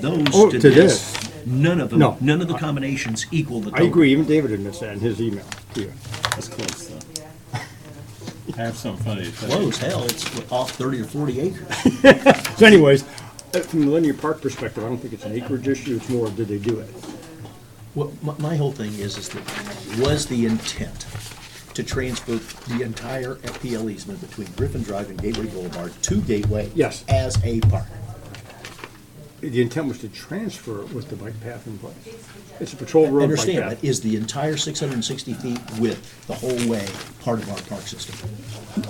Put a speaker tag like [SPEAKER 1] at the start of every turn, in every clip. [SPEAKER 1] those
[SPEAKER 2] Oh,
[SPEAKER 1] to
[SPEAKER 2] to
[SPEAKER 1] this, none of them,
[SPEAKER 2] No.
[SPEAKER 1] none of the combinations equal the
[SPEAKER 2] I
[SPEAKER 1] total.
[SPEAKER 2] agree, even David admits that in his email here.
[SPEAKER 3] That's close, though. I have something funny to tell
[SPEAKER 1] Low
[SPEAKER 3] you.
[SPEAKER 1] as hell, it's off thirty or forty acres.
[SPEAKER 2] So anyways, uh, from the linear park perspective, I don't think it's an acreage issue, it's more, did they do it?
[SPEAKER 1] Well, my, my whole thing is, is that, was the intent to transfer the entire FPL easement between Griffin Drive and Gateway Boulevard to Gateway?
[SPEAKER 2] Yes.
[SPEAKER 1] As a park?
[SPEAKER 2] The intent was to transfer it with the bike path in place. It's a patrol road bike
[SPEAKER 1] Understand, that
[SPEAKER 2] path.
[SPEAKER 1] is the entire six hundred and sixty feet width, the whole way, part of our park system?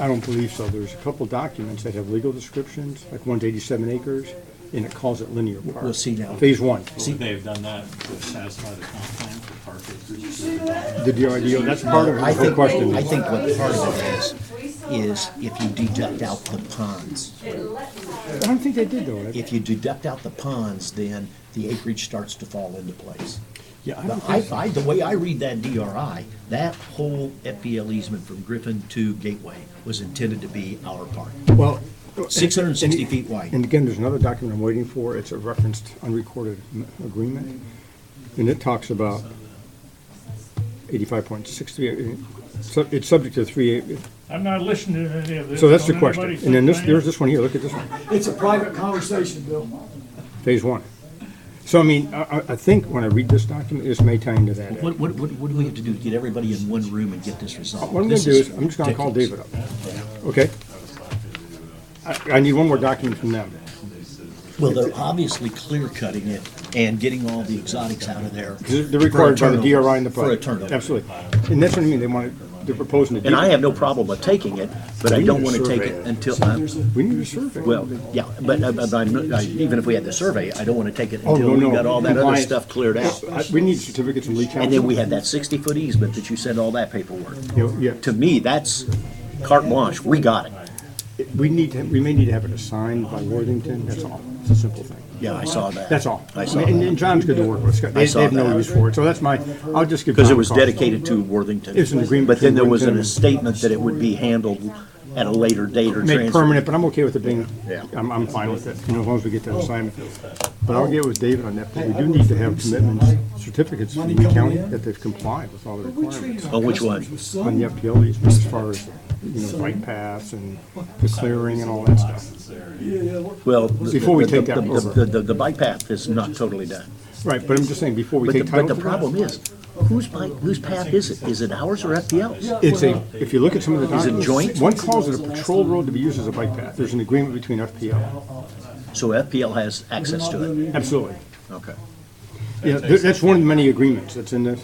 [SPEAKER 2] I don't believe so. There's a couple documents that have legal descriptions, like one's eighty-seven acres, and it calls it linear park.
[SPEAKER 1] Well, see now-
[SPEAKER 2] Phase one.
[SPEAKER 1] See-
[SPEAKER 3] Would they have done that to satisfy the comp plan for park acres?
[SPEAKER 2] The DRDO, that's part of
[SPEAKER 1] I
[SPEAKER 2] the whole
[SPEAKER 1] think,
[SPEAKER 2] question.
[SPEAKER 1] I think what part of it is, is if you deduct out the ponds.
[SPEAKER 2] I don't think they did though.
[SPEAKER 1] If you deduct out the ponds, then the acreage starts to fall into place.
[SPEAKER 2] Yeah, I don't
[SPEAKER 1] But I,
[SPEAKER 2] think so.
[SPEAKER 1] I, the way I read that DRI, that whole FPL easement from Griffin to Gateway was intended to be our park.
[SPEAKER 2] Well.
[SPEAKER 1] 660
[SPEAKER 2] and-
[SPEAKER 1] feet wide.
[SPEAKER 2] And again, there's another document I'm waiting for. It's a referenced unrecorded m- agreement. And it talks about eighty-five point six three, it's subject to three,
[SPEAKER 4] I'm not listening to any of this.
[SPEAKER 2] so that's the
[SPEAKER 4] Don't
[SPEAKER 2] question.
[SPEAKER 4] anybody
[SPEAKER 2] And then
[SPEAKER 4] say
[SPEAKER 2] this, there's
[SPEAKER 4] anything.
[SPEAKER 2] this one here, look at this one.
[SPEAKER 5] It's a private conversation, Bill.
[SPEAKER 2] Phase one. So I mean, I, I I think when I read this document, this may tie into that.
[SPEAKER 1] What, what, what what do we have to do to get everybody in one room and get this resolved?
[SPEAKER 2] What I'm gonna
[SPEAKER 1] This
[SPEAKER 2] do is, I'm just gonna call
[SPEAKER 1] ridiculous.
[SPEAKER 2] David up, okay? I, I need one more document from them.
[SPEAKER 1] Well, they're obviously clear cutting it and getting all the exotics out of there.
[SPEAKER 2] They're
[SPEAKER 1] for a
[SPEAKER 2] required by the
[SPEAKER 1] turnover-
[SPEAKER 2] DRI and the.
[SPEAKER 1] For a
[SPEAKER 2] PUD.
[SPEAKER 1] turnover.
[SPEAKER 2] Absolutely. And that's what I mean, they want, it- they're proposing to do.
[SPEAKER 1] And I have no problem with taking it, but I don't want to take it until, I'm-
[SPEAKER 2] We need a survey.
[SPEAKER 1] well, yeah, but uh, but I'm- I- even if we had the survey, I don't want to take it
[SPEAKER 2] Oh,
[SPEAKER 1] until
[SPEAKER 2] no,
[SPEAKER 1] we
[SPEAKER 2] no.
[SPEAKER 1] got all that other
[SPEAKER 2] Compliance.
[SPEAKER 1] stuff cleared out.
[SPEAKER 2] I- We need certificates from Lee County.
[SPEAKER 1] And then we had that 60-foot easement that you sent all that paperwork.
[SPEAKER 2] Yeah,
[SPEAKER 1] To me, that's carte blanche, we got it.
[SPEAKER 2] we need to, we may need to have it assigned by Worthington, that's all. It's a simple thing.
[SPEAKER 1] Yeah, I saw that.
[SPEAKER 2] That's all.
[SPEAKER 1] I saw
[SPEAKER 2] And and
[SPEAKER 1] that,
[SPEAKER 2] John's good to work with, Scott. They
[SPEAKER 1] saw
[SPEAKER 2] they have no
[SPEAKER 1] that.
[SPEAKER 2] use for it, so that's my, I'll just give.
[SPEAKER 1] because it
[SPEAKER 2] John a
[SPEAKER 1] was
[SPEAKER 2] call.
[SPEAKER 1] dedicated to Worthington.
[SPEAKER 2] It's an agreement
[SPEAKER 1] But then there was
[SPEAKER 2] between
[SPEAKER 1] a
[SPEAKER 2] Worthington-
[SPEAKER 1] statement that it would be handled at a later date or
[SPEAKER 2] Make
[SPEAKER 1] transfer.
[SPEAKER 2] permanent, but I'm okay with it being,
[SPEAKER 1] Yeah.
[SPEAKER 2] I'm, I'm fine with it, you know, as long as we get that assignment. But I'll get with David on that, but we do need to have commitments, certificates from the county that they've complied with all the requirements.
[SPEAKER 1] On Oh, which one?
[SPEAKER 2] On the FPL easement, as far as, you know, bike paths and the clearing and all that stuff.
[SPEAKER 1] Well, the-
[SPEAKER 2] Before we
[SPEAKER 1] the-
[SPEAKER 2] take
[SPEAKER 1] the-
[SPEAKER 2] that
[SPEAKER 1] the-
[SPEAKER 2] over.
[SPEAKER 1] The, the, the bike path is not totally done.
[SPEAKER 2] Right, but I'm just saying, before we
[SPEAKER 1] But the,
[SPEAKER 2] take title
[SPEAKER 1] but
[SPEAKER 2] to
[SPEAKER 1] the
[SPEAKER 2] that-
[SPEAKER 1] problem is, whose bike, whose path is it? Is it ours or FPL's?
[SPEAKER 2] It's a, if you look at some of the
[SPEAKER 1] Is it
[SPEAKER 2] documents.
[SPEAKER 1] joint?
[SPEAKER 2] One calls it a patrol road to be used as a bike path. There's an agreement between FPL.
[SPEAKER 1] So FPL has access to it.
[SPEAKER 2] Absolutely.
[SPEAKER 1] Okay.
[SPEAKER 2] Yeah, th- that's one of the many agreements that's in this.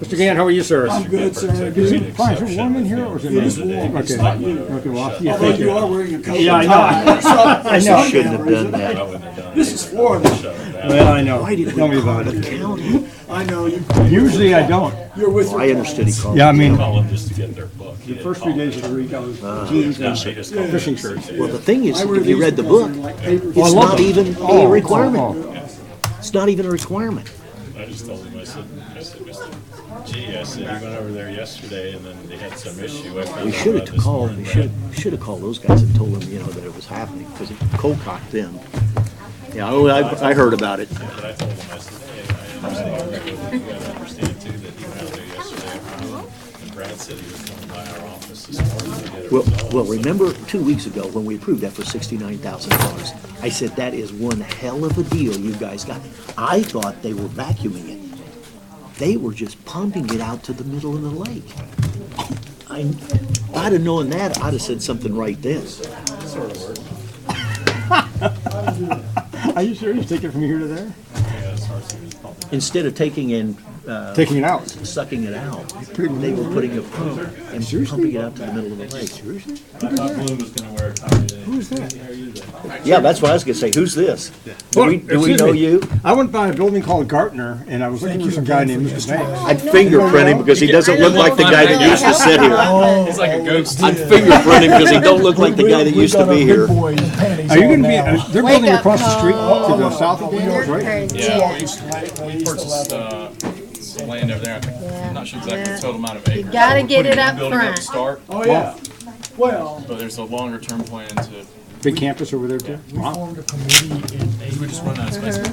[SPEAKER 2] Mr. Gann, how are you, sir?
[SPEAKER 5] I'm good, sir.
[SPEAKER 2] Is it, fine, is it warm in here or is it?
[SPEAKER 5] It is warm.
[SPEAKER 2] Okay.
[SPEAKER 5] It's not you.
[SPEAKER 2] Okay, well, yeah,
[SPEAKER 5] Although
[SPEAKER 2] thank
[SPEAKER 5] Oh, you
[SPEAKER 2] you.
[SPEAKER 5] are wearing a coat.
[SPEAKER 2] Yeah, I know.
[SPEAKER 5] I
[SPEAKER 2] know.
[SPEAKER 5] Shouldn't have done that. This is Florida.
[SPEAKER 2] Well, I know. Tell me about it.
[SPEAKER 5] I know, you,
[SPEAKER 2] Usually I don't.
[SPEAKER 5] you're with your.
[SPEAKER 1] I understood he called.
[SPEAKER 2] Yeah, I mean,
[SPEAKER 3] Call them just to get their book. The
[SPEAKER 2] first few days of the week I was
[SPEAKER 1] Ah,
[SPEAKER 2] jeans and fishing shirts.
[SPEAKER 1] Well, the thing is,
[SPEAKER 5] I wear
[SPEAKER 1] if you
[SPEAKER 5] these
[SPEAKER 1] read the
[SPEAKER 5] because
[SPEAKER 1] book,
[SPEAKER 5] they're like paper.
[SPEAKER 1] it's
[SPEAKER 2] love
[SPEAKER 1] not
[SPEAKER 2] them.
[SPEAKER 1] even a
[SPEAKER 2] Oh,
[SPEAKER 1] requirement.
[SPEAKER 2] oh, oh.
[SPEAKER 1] It's not even a requirement.
[SPEAKER 3] I just told him, I said, I said, Mr. G, I said, he went over there yesterday and then they had some issue. I found
[SPEAKER 1] We
[SPEAKER 3] out
[SPEAKER 1] should
[SPEAKER 3] about
[SPEAKER 1] have
[SPEAKER 3] this
[SPEAKER 1] called,
[SPEAKER 3] morning,
[SPEAKER 1] we
[SPEAKER 3] but
[SPEAKER 1] should, should have called those guys and told them, you know, that it was happening, because it cold-cocked them. Yeah, oh, I, I heard about it.
[SPEAKER 3] But I told him, I said, hey, I understand, you gotta understand too that he went out there yesterday afternoon. And Brad said he was coming by our office this morning to get it
[SPEAKER 1] Well,
[SPEAKER 3] resolved.
[SPEAKER 1] well,
[SPEAKER 3] So-
[SPEAKER 1] remember two weeks ago when we approved that for sixty-nine thousand dollars? I said, that is one hell of a deal you guys got. I thought they were vacuuming it. They were just pumping it out to the middle of the lake. I, I'd have known that, I'd have said something right then.
[SPEAKER 2] Are you serious? Take it from here to there?
[SPEAKER 1] Instead of taking and Uh,
[SPEAKER 2] Taking it out.
[SPEAKER 1] sucking it out, they were putting a pump and pumping it out to the middle of the lake.
[SPEAKER 3] I thought Bloom was gonna wear a tie today.
[SPEAKER 2] Who's that?
[SPEAKER 1] Yeah, that's what I was gonna say, who's this? Do
[SPEAKER 2] Look,
[SPEAKER 1] we, do we
[SPEAKER 2] excuse
[SPEAKER 1] know
[SPEAKER 2] me.
[SPEAKER 1] you?
[SPEAKER 2] I went by a building called Gartner, and I was looking for some guy named Mr. Banks.
[SPEAKER 1] I'd fingerprint him because he doesn't look like the guy that used to sit here.
[SPEAKER 6] It's
[SPEAKER 7] Oh.
[SPEAKER 6] like a ghost.
[SPEAKER 1] I'd fingerprint him because he don't look like the guy that used to be here.
[SPEAKER 2] Are you gonna be, uh, they're
[SPEAKER 7] Wake
[SPEAKER 2] building
[SPEAKER 7] up
[SPEAKER 2] across the street
[SPEAKER 7] call.
[SPEAKER 2] to the south of Daniels, right?
[SPEAKER 6] Yeah, we used to- we purchased, uh, some land over there, I think, I'm not sure exactly the total amount of acres.
[SPEAKER 7] gotta
[SPEAKER 6] We're
[SPEAKER 7] get
[SPEAKER 6] putting
[SPEAKER 7] it
[SPEAKER 6] a
[SPEAKER 7] up
[SPEAKER 6] building
[SPEAKER 7] front.
[SPEAKER 6] to Start,
[SPEAKER 5] Oh, yeah. Well,
[SPEAKER 6] but there's a longer term plan to
[SPEAKER 8] Big campus over there too?
[SPEAKER 2] We
[SPEAKER 8] Wow.
[SPEAKER 2] formed a committee in April.
[SPEAKER 5] We just run out of space.